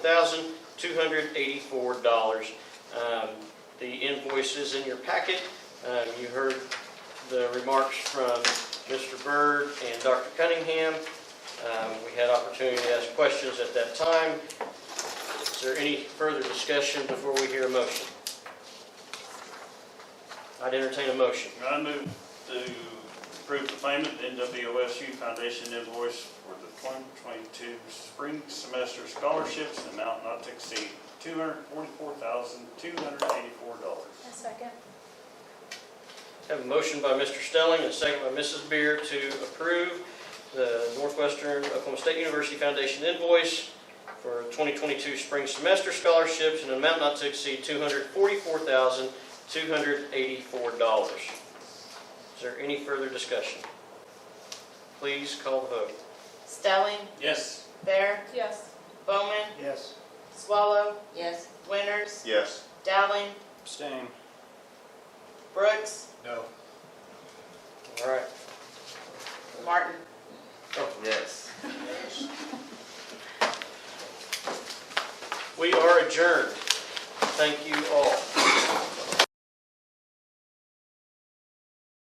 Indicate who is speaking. Speaker 1: thousand two hundred eighty-four dollars. Um, The invoice is in your packet. Um, You heard the remarks from Mr. Byrd and Dr. Cunningham. Um, We had opportunity to ask questions at that time. Is there any further discussion before we hear a motion? I'd entertain a motion.
Speaker 2: I move to approve the payment to NWOSU Foundation invoice for the 2022 spring semester scholarships, in amount not to exceed $244,284.
Speaker 3: A second.
Speaker 1: Have a motion by Mr. Stelling and a second by Mrs. Beer to approve the Northwestern Oklahoma State University Foundation invoice for 2022 spring semester scholarships in an amount not to exceed $244,284. Is there any further discussion? Please call the vote.
Speaker 4: Stelling,
Speaker 2: Yes.
Speaker 4: Bear,
Speaker 3: Yes.
Speaker 4: Bowman,
Speaker 2: Yes.
Speaker 4: Swallow. Yes. Winters,
Speaker 5: Yes.
Speaker 4: Dowling,
Speaker 2: Abstain.
Speaker 4: Brooks,
Speaker 5: No.
Speaker 1: All right.
Speaker 4: Martin.
Speaker 5: Yes.
Speaker 1: We are adjourned. Thank you all.